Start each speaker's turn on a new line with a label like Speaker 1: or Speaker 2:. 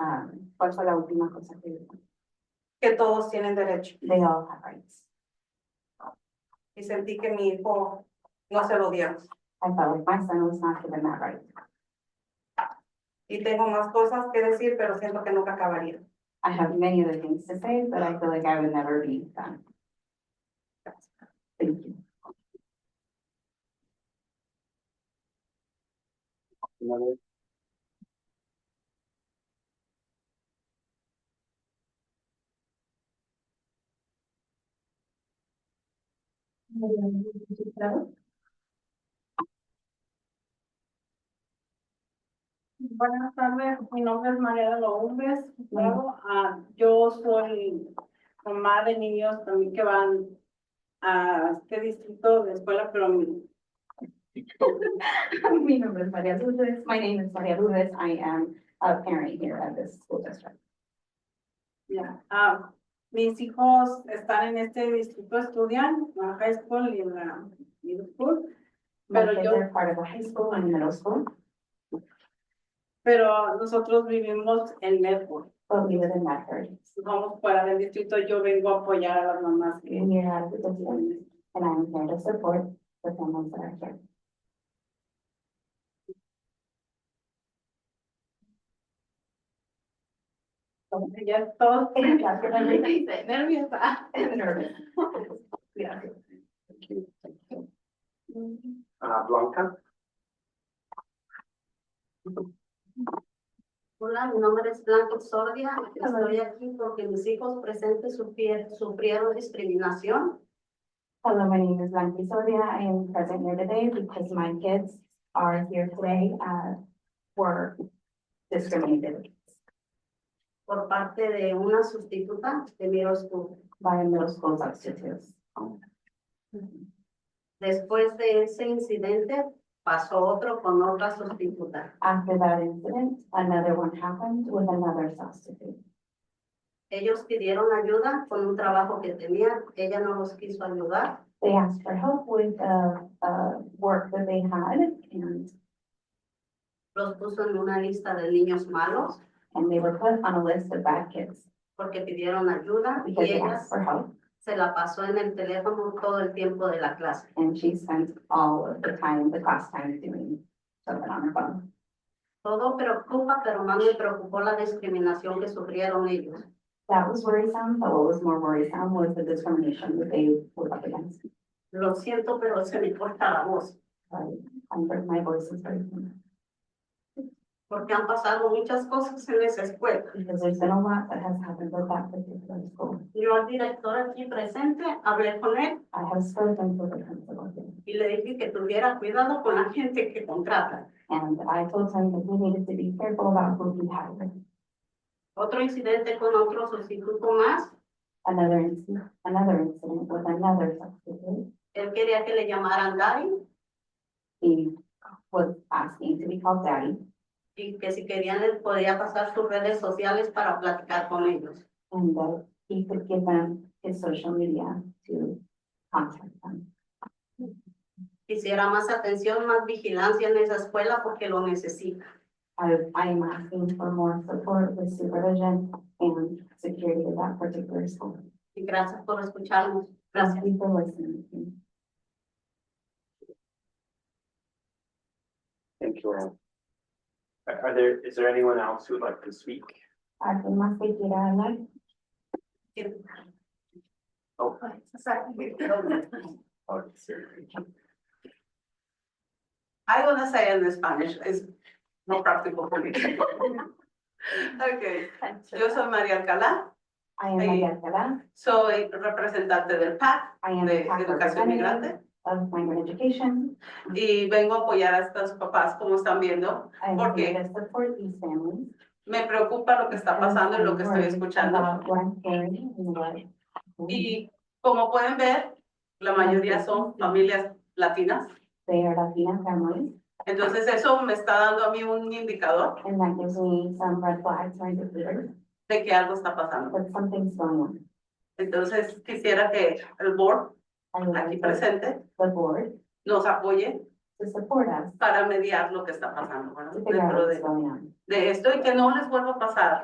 Speaker 1: ¿Cuál fue Um, la última cosa que dijo? Que todos tienen derecho. They all have rights. Y sentí que mi hijo no se lo dieron. I felt like my son was not given that right. Y tengo más cosas que decir, pero siento que nunca acabaría. I have many other things to say, but I feel like I would never be done. Thank you.
Speaker 2: Una vez.
Speaker 3: Buenas tardes, mi nombre es Mariela López.
Speaker 1: Mm.
Speaker 3: Bravo. Ah, yo soy mamá de niños también que van a este distrito de escuela, pero mi-
Speaker 1: My name is Maria Lourdes. My name is Maria Lourdes. I am a parent here at this school district.
Speaker 3: ya, ah, mis hijos están en este distrito, estudian la high school y la middle school,
Speaker 1: My
Speaker 3: Pero
Speaker 1: kids
Speaker 3: yo-
Speaker 1: are part of a high school and middle school,
Speaker 3: pero nosotros vivimos en Medford.
Speaker 1: but we live in Medford.
Speaker 3: Vamos fuera del distrito, yo vengo a apoyar a las mamás que
Speaker 1: We are out of the district, and I'm here to support the families that are here.
Speaker 3: ya es todo.
Speaker 1: After everything,
Speaker 3: Nerviosa.
Speaker 1: I'm nervous. Yeah.
Speaker 2: Ah, Blanca,
Speaker 4: Hola, mi nombre es Blanca Sordia. Estoy aquí porque mis hijos presentes sufri- sufrieron discriminación.
Speaker 1: Hello, my name is Lanky Soria. I am present here today because my kids are here today, uh, were discriminated
Speaker 4: por parte de una sustituta de mi school.
Speaker 1: by middle school substitutes.
Speaker 4: Después de ese incidente, pasó otro con otra sustituta.
Speaker 1: After that incident, another one happened with another substitute.
Speaker 4: Ellos pidieron ayuda con un trabajo que tenían, ella no los quiso ayudar.
Speaker 1: They asked for help with, uh, uh, work that they had and,
Speaker 4: Los puso en una lista de niños malos
Speaker 1: and they were put on a list of bad kids
Speaker 4: porque pidieron ayuda y
Speaker 1: because they
Speaker 4: ella
Speaker 1: asked for help.
Speaker 4: se la pasó en el teléfono todo el tiempo de la clase.
Speaker 1: And she spent all of the time, the class time doing something on her phone.
Speaker 4: Todo preocupa, pero más me preocupó la discriminación que sufrieron ellos.
Speaker 1: That was worrisome, but what was more worrisome was the discrimination that they were up against.
Speaker 4: Lo siento, pero se me corta la voz,
Speaker 1: Sorry, I'm, my voice is breaking
Speaker 4: porque han pasado muchas cosas en esa escuela.
Speaker 1: because there's been a lot that has happened with that particular school.
Speaker 4: Yo al director aquí presente hablé con él
Speaker 1: I have spoken to the principal here.
Speaker 4: y le dije que tuviera cuidado con la gente que contrata.
Speaker 1: And I told him that we needed to be careful about who we hired.
Speaker 4: Otro incidente con otro sustituto más,
Speaker 1: Another incident, another incident with another substitute.
Speaker 4: él quería que le llamaran Daddy
Speaker 1: He was asking to be called daddy
Speaker 4: y que si querían les podía pasar sus redes sociales para platicar con ellos.
Speaker 1: and that he could give them his social media to contact them.
Speaker 4: Quisiera más atención, más vigilancia en esa escuela porque lo necesita.
Speaker 1: I, I am asking for more support with supervision and security of that particular school.
Speaker 4: Y gracias por escucharnos. Gracias.
Speaker 1: Thank you for listening.
Speaker 2: thank you, Ann. Are are there, is there anyone else who would like to speak?
Speaker 1: Alguien más que quiera hablar?
Speaker 2: Oh. Oh, sorry.
Speaker 3: I want to say in Spanish, it's more practical for me. Okay, yo soy María Alcalá,
Speaker 1: I am Maria Alcalá.
Speaker 3: soy representante del PAC
Speaker 1: I am.
Speaker 3: de
Speaker 1: a PAC
Speaker 3: Educación
Speaker 1: representative
Speaker 3: Migrante
Speaker 1: Of migrant education.
Speaker 3: y vengo a apoyar a estos papás, como están viendo.
Speaker 1: I am
Speaker 3: ¿Por qué?
Speaker 1: here to support these families.
Speaker 3: Me preocupa lo que está pasando y lo que estoy escuchando.
Speaker 1: About Black parents and what-
Speaker 3: Y como pueden ver, la mayoría son familias latinas.
Speaker 1: They are Latina families,
Speaker 3: Entonces eso me está dando a mí un indicador
Speaker 1: and that gives me some red flags or indicators
Speaker 3: de que algo está pasando.
Speaker 1: that something's going on.
Speaker 3: Entonces quisiera que el board
Speaker 1: I would like the-
Speaker 3: aquí presente
Speaker 1: the board
Speaker 3: nos apoye
Speaker 1: to support us
Speaker 3: para mediar lo que está pasando, ¿verdad?
Speaker 1: to figure out
Speaker 3: Dentro
Speaker 1: what's
Speaker 3: de,
Speaker 1: going on.
Speaker 3: de esto y que no les vuelva a pasar